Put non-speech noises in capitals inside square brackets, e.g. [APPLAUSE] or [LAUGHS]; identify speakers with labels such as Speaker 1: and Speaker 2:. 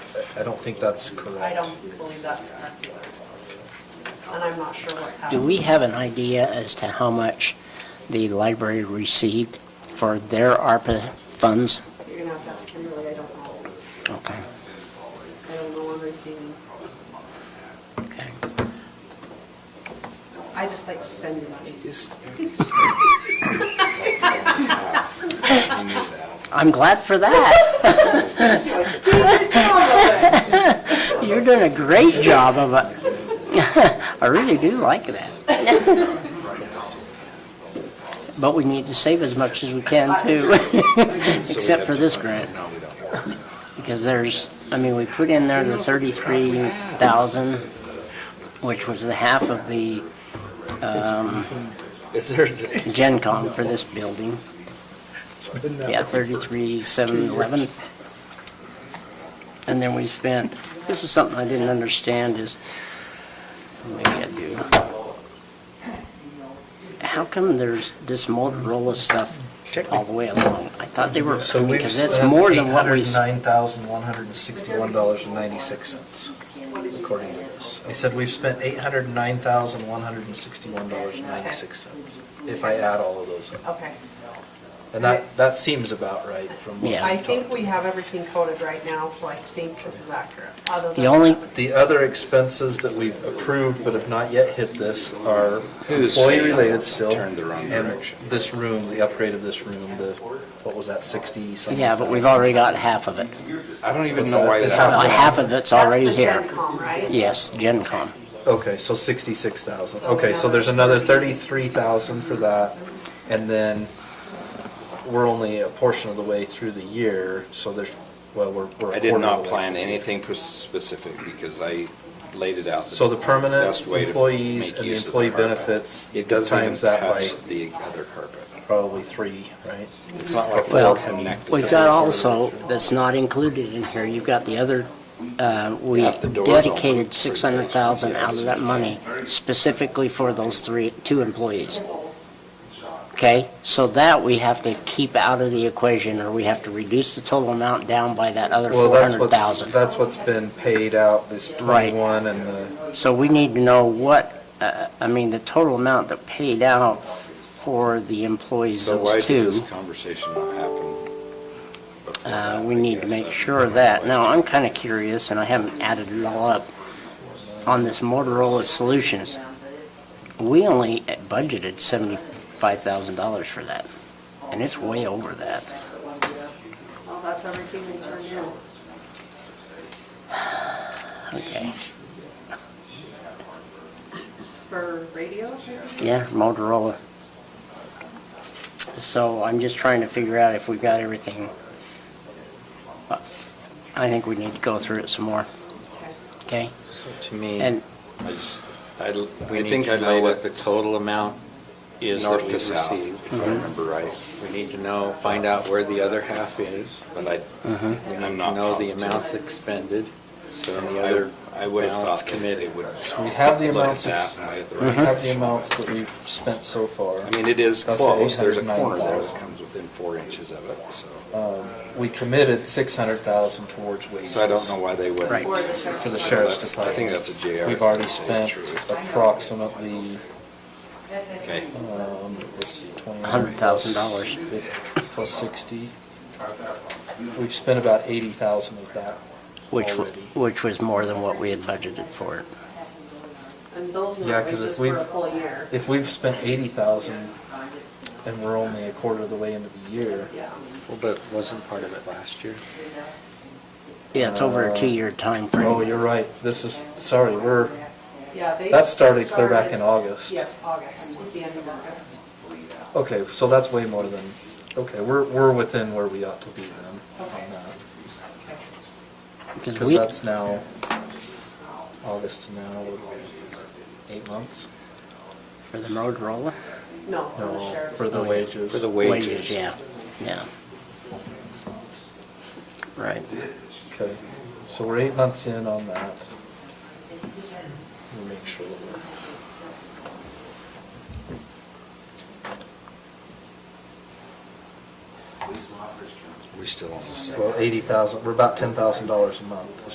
Speaker 1: I don't think that's correct.
Speaker 2: I don't believe that's correct either. And I'm not sure what's
Speaker 3: Do
Speaker 2: happening.
Speaker 3: we have an idea as to how much the library received for their ARPA funds?
Speaker 2: You're gonna have to ask Kimberly, I don't know.
Speaker 3: Okay,
Speaker 2: I don't know what I'm receiving.
Speaker 3: okay.
Speaker 2: I just like to spend your money. [LAUGHS]
Speaker 4: Just. You knew that.
Speaker 3: I'm glad for that. [LAUGHS] You're doing a great job of it. [LAUGHS] I really do like that. [LAUGHS] But we need to save as much as we can too, [LAUGHS] except for this grant.
Speaker 4: No, we don't.
Speaker 3: Because there's, I mean, we put in there the thirty-three thousand, which was the half of the
Speaker 4: Is there,
Speaker 3: Gen Con for this building.
Speaker 1: It's been that
Speaker 3: Yeah,
Speaker 1: way.
Speaker 3: thirty-three, seven, eleven. And then we spent, this is something I didn't understand is, maybe I do. How come there's this Motorola stuff all the way along? I thought they were,
Speaker 1: So we've
Speaker 3: because that's
Speaker 1: spent
Speaker 3: more
Speaker 1: eight
Speaker 3: than what
Speaker 1: hundred
Speaker 3: we.
Speaker 1: and nine thousand, one hundred and sixty-one dollars and ninety-six cents, according to this. I said we've spent eight hundred and nine thousand, one hundred and sixty-one dollars and ninety-six cents, if I add all of those up.
Speaker 2: Okay.
Speaker 1: And that, that seems about right from what we
Speaker 3: Yeah.
Speaker 2: I
Speaker 1: talked
Speaker 2: think we
Speaker 1: about.
Speaker 2: have everything coded right now, so I think this is accurate. other
Speaker 3: The
Speaker 2: than-
Speaker 3: only-
Speaker 1: The other expenses that we've approved but have not yet hit this are
Speaker 4: Who's saying
Speaker 1: employee-related still.
Speaker 4: turned the wrong
Speaker 1: and
Speaker 4: direction?
Speaker 1: This room, the upgrade of this room, the, what was that, sixty something?
Speaker 3: Yeah, but we've already got half of it.
Speaker 4: I don't even know why
Speaker 1: Is
Speaker 4: that.
Speaker 1: how-
Speaker 3: Well, half of it's already
Speaker 2: That's
Speaker 3: here.
Speaker 2: the Gen Con, right?
Speaker 3: Yes, Gen Con.
Speaker 1: Okay, so sixty-six thousand,
Speaker 2: So
Speaker 1: okay, so there's
Speaker 2: another
Speaker 1: another thirty-three thousand for that, and then we're only a portion of the way through the year, so there's, well, we're, we're. a
Speaker 4: I did
Speaker 1: quarter of
Speaker 4: not
Speaker 1: the way
Speaker 4: plan
Speaker 1: through.
Speaker 4: anything pers- specific because I laid it out.
Speaker 1: So the permanent
Speaker 4: best way to
Speaker 1: employees
Speaker 4: make
Speaker 1: and the
Speaker 4: use of
Speaker 1: employee
Speaker 4: carpet.
Speaker 1: benefits,
Speaker 4: It doesn't even
Speaker 1: times that
Speaker 4: touch
Speaker 1: by-
Speaker 4: the other carpet.
Speaker 1: probably three, right?
Speaker 4: It's not like it's all
Speaker 3: Well,
Speaker 4: connected.
Speaker 3: we've got also, that's not included in here, you've got the other, uh, we
Speaker 4: Half the doors open
Speaker 3: dedicated
Speaker 4: for
Speaker 3: six hundred thousand out of
Speaker 4: business,
Speaker 3: that money specifically for those three, two employees. Okay, so that we have to keep out of the equation, or we have to reduce the total amount down by that other
Speaker 1: Well,
Speaker 3: four
Speaker 1: that's
Speaker 3: hundred
Speaker 1: what's,
Speaker 3: thousand.
Speaker 1: that's what's been paid out, this
Speaker 3: Right.
Speaker 1: twenty-one and the,
Speaker 3: So we need to know what, uh, I mean, the total amount that paid out for the employees,
Speaker 4: So why
Speaker 3: those
Speaker 4: did
Speaker 3: two.
Speaker 4: this conversation not happen? before
Speaker 3: Uh,
Speaker 4: that,
Speaker 3: We
Speaker 4: I
Speaker 3: need to
Speaker 4: guess?
Speaker 3: make
Speaker 4: That's
Speaker 3: sure of
Speaker 4: my
Speaker 3: that. Now,
Speaker 4: question.
Speaker 3: I'm kind of curious, and I haven't added it all up, on this Motorola Solutions. We only budgeted $75,000 for that, and it's way over that.
Speaker 2: Well, that's everything we turned in.
Speaker 3: Okay,
Speaker 2: For radios, maybe?
Speaker 3: yeah, Motorola. So I'm just trying to figure out if we've got everything. Uh, I think we need to go through it some more,
Speaker 2: Okay.
Speaker 3: okay?
Speaker 5: to me, I
Speaker 3: And
Speaker 5: just, I l-
Speaker 4: We
Speaker 5: I
Speaker 4: need
Speaker 5: think
Speaker 4: to
Speaker 5: I
Speaker 4: know
Speaker 5: know
Speaker 4: what
Speaker 5: what the total amount is that
Speaker 4: North
Speaker 5: we
Speaker 4: to south,
Speaker 5: received.
Speaker 3: Mm-hmm.
Speaker 4: if I remember right.
Speaker 5: We need to know, find out where the other half is.
Speaker 4: But I,
Speaker 5: We
Speaker 4: I'm
Speaker 5: need to
Speaker 4: not
Speaker 5: know the
Speaker 4: positive.
Speaker 5: amounts expended.
Speaker 4: So
Speaker 5: and the other
Speaker 4: I, I would have
Speaker 5: balance
Speaker 4: thought that they
Speaker 5: committed.
Speaker 4: would.
Speaker 1: we have the
Speaker 4: look at
Speaker 1: amounts,
Speaker 4: that
Speaker 1: ex-
Speaker 4: and lay it the
Speaker 1: we
Speaker 4: right
Speaker 3: Mm-hmm.
Speaker 1: have the
Speaker 4: direction.
Speaker 1: amounts that we've spent so far.
Speaker 4: I mean, it is
Speaker 1: That's the
Speaker 4: close, there's a
Speaker 1: 809
Speaker 4: corner there that
Speaker 1: thousand.
Speaker 4: comes within four inches of it, so.
Speaker 1: We committed six hundred thousand towards wages.
Speaker 4: So I don't know why they wouldn't.
Speaker 3: Right.
Speaker 2: For the sheriff's
Speaker 1: For the
Speaker 2: department.
Speaker 1: sheriff's
Speaker 4: That's- I think
Speaker 1: department.
Speaker 4: that's a JR
Speaker 1: We've already
Speaker 4: thing, to tell you the
Speaker 1: spent
Speaker 4: truth.
Speaker 1: approximately,
Speaker 4: Okay,
Speaker 1: um, let's see, twenty.
Speaker 3: $100,000.
Speaker 1: Plus sixty. We've spent about eighty thousand of that
Speaker 3: which, w-
Speaker 1: already.
Speaker 3: which was more than what we had budgeted for it.
Speaker 2: And those
Speaker 1: Yeah,
Speaker 2: numbers
Speaker 1: 'cause if
Speaker 2: just for a
Speaker 1: we've-
Speaker 2: full year.
Speaker 1: If we've spent eighty thousand and we're only a quarter of the way into the year,
Speaker 2: Yeah.
Speaker 5: Well, but wasn't part of it last year?
Speaker 3: Yeah, it's over
Speaker 1: Uh,
Speaker 3: a two-year time frame.
Speaker 1: oh, you're right, this is, sorry, we're,
Speaker 2: Yeah, they.
Speaker 1: that started clear back in
Speaker 2: started-
Speaker 1: August.
Speaker 2: Yes, August, the end of August.
Speaker 1: Okay, so that's way more than, okay, we're, we're within where we ought to be then
Speaker 2: Okay.
Speaker 1: on that.
Speaker 3: Because
Speaker 1: Because
Speaker 3: we,
Speaker 1: that's now, August to now, what, eight months?
Speaker 3: for the Motorola?
Speaker 2: No, for
Speaker 1: No,
Speaker 2: the sheriff's.
Speaker 1: for the wages.
Speaker 5: For the wages.
Speaker 3: Yeah, yeah. Right.
Speaker 1: Okay, so we're eight months in on that. We'll make sure that we're.
Speaker 4: we still on the same.
Speaker 1: Well, eighty thousand, we're about ten thousand dollars a month